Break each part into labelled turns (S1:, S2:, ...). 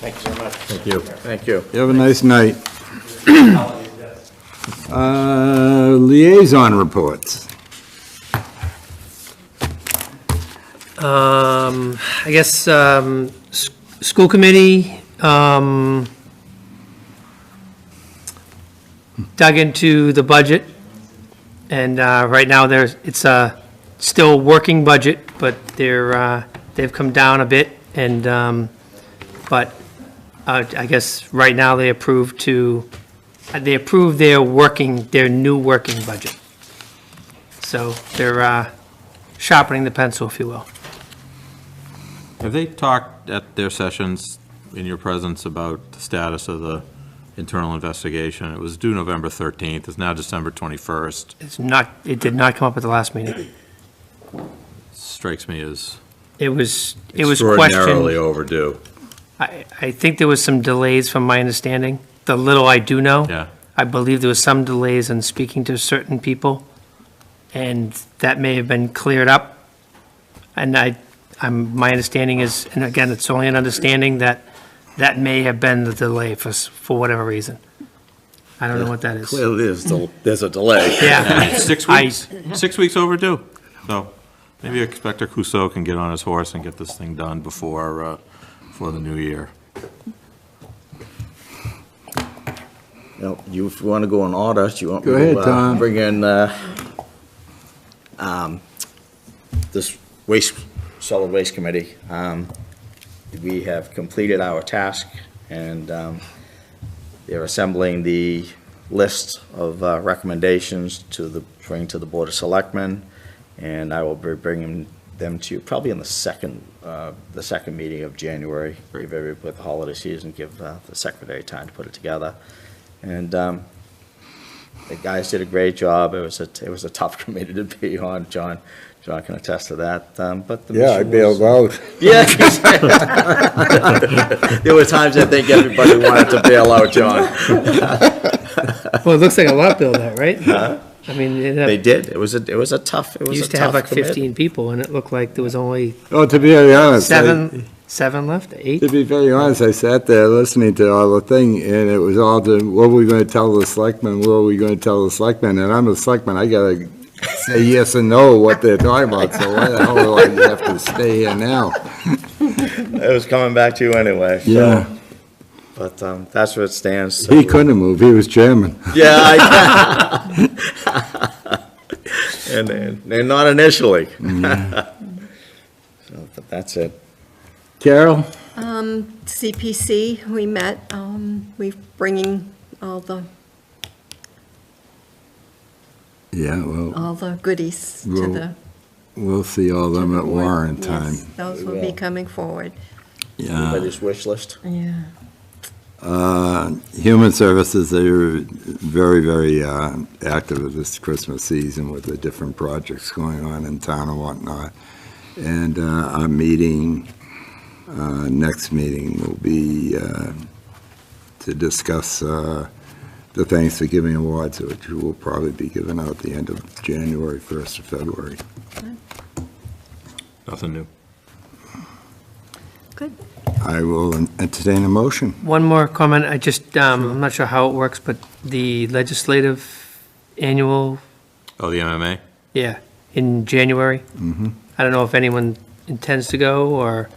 S1: Thank you very much.
S2: Thank you.
S3: Thank you.
S2: You have a nice night. Uh, Liaison reports.
S4: Um, I guess, um, s- school committee, um, dug into the budget, and, uh, right now there's, it's a still working budget, but they're, uh, they've come down a bit, and, um, but, uh, I guess, right now they approved to, uh, they approved their working, their new working budget. So they're, uh, sharpening the pencil, if you will.
S3: Have they talked at their sessions in your presence about the status of the internal investigation? It was due November 13th, it's now December 21st.
S4: It's not, it did not come up at the last meeting.
S3: Strikes me as
S4: It was, it was
S3: extraordinarily
S4: questioned.
S3: overdue.
S4: I, I think there was some delays from my understanding, the little I do know.
S3: Yeah,
S4: I believe there was some delays in speaking to certain people, and that may have been cleared up. And I, I'm, my understanding is, and again, it's only an understanding, that that may have been the delay for, s- for whatever reason. I don't know what that is.
S5: Clearly, there's, del- there's a delay.
S4: Yeah.
S3: It's six
S4: I-
S3: weeks, six weeks overdue. So maybe Inspector Clouseau can get on his horse and get this thing done before, uh, before the new year.
S5: Now, you- If you want to go in order, you want me
S2: Go
S5: to,
S2: ahead,
S5: uh,
S2: Tom.
S5: bring in uh, um, this waste, solid waste committee. Um, We have completed our task, and um, they're assembling the list of uh, recommendations to the, bring to the Board of Selectmen, and I will be bringing them to, you probably in the second, uh, the second meeting of January, give everybody, with the holiday season, give uh, the secretary time to put it together. And um, the guys did a great job. It was a, it was a tough committee to be on. John, John can attest to that. Um, But the
S2: Yeah, I
S5: mission was-
S2: bailed out.
S5: Yeah. There were times I think everybody wanted to bail out, John.
S4: Well, it looks like a lot build out, right? I mean, it
S5: They
S4: had-
S5: did. It was a, it was a tough, it was a
S4: used to have
S5: tough
S4: like
S5: commit.
S4: 15 people, and it looked like there was only
S2: Oh, to be very honest. I-
S4: Seven, seven left, eight?
S2: To be very honest, I sat there listening to all the thing, and it was all the, what are we going to tell the selectmen, what are we going to tell the selectmen? And I'm a selectman, I gotta say yes and no what they're talking about, so why the hell do I have to stay here now?
S5: It was coming back to you anyway. so-
S2: Yeah,
S5: But um, that's where it stands. so-
S2: he couldn't move, he was chairman.
S5: Yeah. I- And, and and not initially.
S2: Mm-hmm.
S5: So, But that's it.
S2: Carol?
S6: Um, CPC, we met, um, we're bringing all the,
S2: Yeah, well,
S6: all the goodies to
S2: Well,
S6: the.
S2: we'll see all them at Warren
S6: Yes,
S2: time.
S6: Those will be coming forward,
S2: Yeah.
S5: Everybody's wish list.
S6: yeah.
S2: Uh, Human Services, they were very, very uh, active this Christmas season with the different projects going on in town and whatnot. And uh, our meeting, uh, next meeting will be uh, to discuss uh, the Thanksgiving awards, which will probably be given out the end of January, 1st of February.
S3: Nothing new.
S2: I will entertain a motion.
S4: One more comment, I just, um, I'm not sure how it works, but the legislative annual,
S3: Oh, the MMA?
S4: yeah, in January.
S2: Mhm.
S4: I don't know if anyone intends to go, or,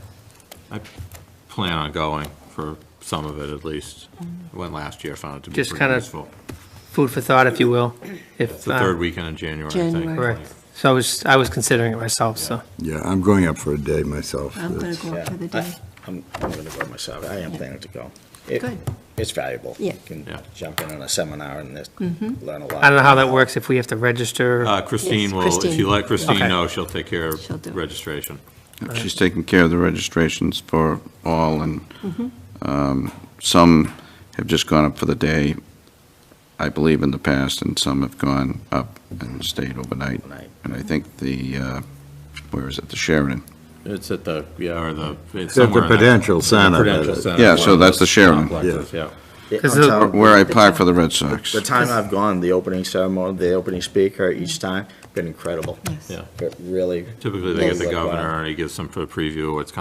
S3: Plan on going for some of it at least. Went last year, found it to be
S4: Just
S3: pretty
S4: kinda-
S3: useful.
S4: food for thought, if you will, if,
S3: It's the third
S4: uh,
S3: weekend in January, I think.
S6: January.
S4: correct. So I was, I was considering it myself, so.
S2: Yeah, I'm going up for a day myself.
S6: I'm gonna go up for the
S5: Yeah.
S6: day.
S5: I'm, I'm gonna go myself. I am planning to go. It-
S6: Good.
S5: It's valuable.
S6: Yeah.
S5: You
S3: Yeah.
S5: can jump in on a seminar and just
S6: Mm-hmm.
S5: learn a lot.
S4: I don't know how that works, if we have to register.
S3: Uh, Christine
S6: Yes,
S3: will, if you
S6: Christine.
S3: let Christine
S4: Okay.
S3: know, she'll take care
S6: She'll do
S3: of
S6: it.
S3: registration.
S7: She's taking care of the registrations for all, and um, some have just gone up for the day, I believe, in the past, and some have gone up and stayed overnight.
S5: Overnight.
S7: And I think the, uh, where is it, the Sheridan?
S3: It's at the, yeah, or the, it's
S2: At the
S3: somewhere in that-
S2: Prudential Center.
S3: Prudential Center.
S7: Yeah, so that's the Sheridan.
S3: Complexes, Yeah.
S5: Yeah,
S4: Is
S5: on
S4: it-
S5: top-
S7: Where I applied for the Red Sox.
S5: The time I've gone, the opening ceremony, the opening speaker each time, been incredible.
S6: Yes.
S3: Yeah.
S5: It really,
S3: Typically, they get the
S5: Yes.
S3: governor, and he gives them a preview of what's coming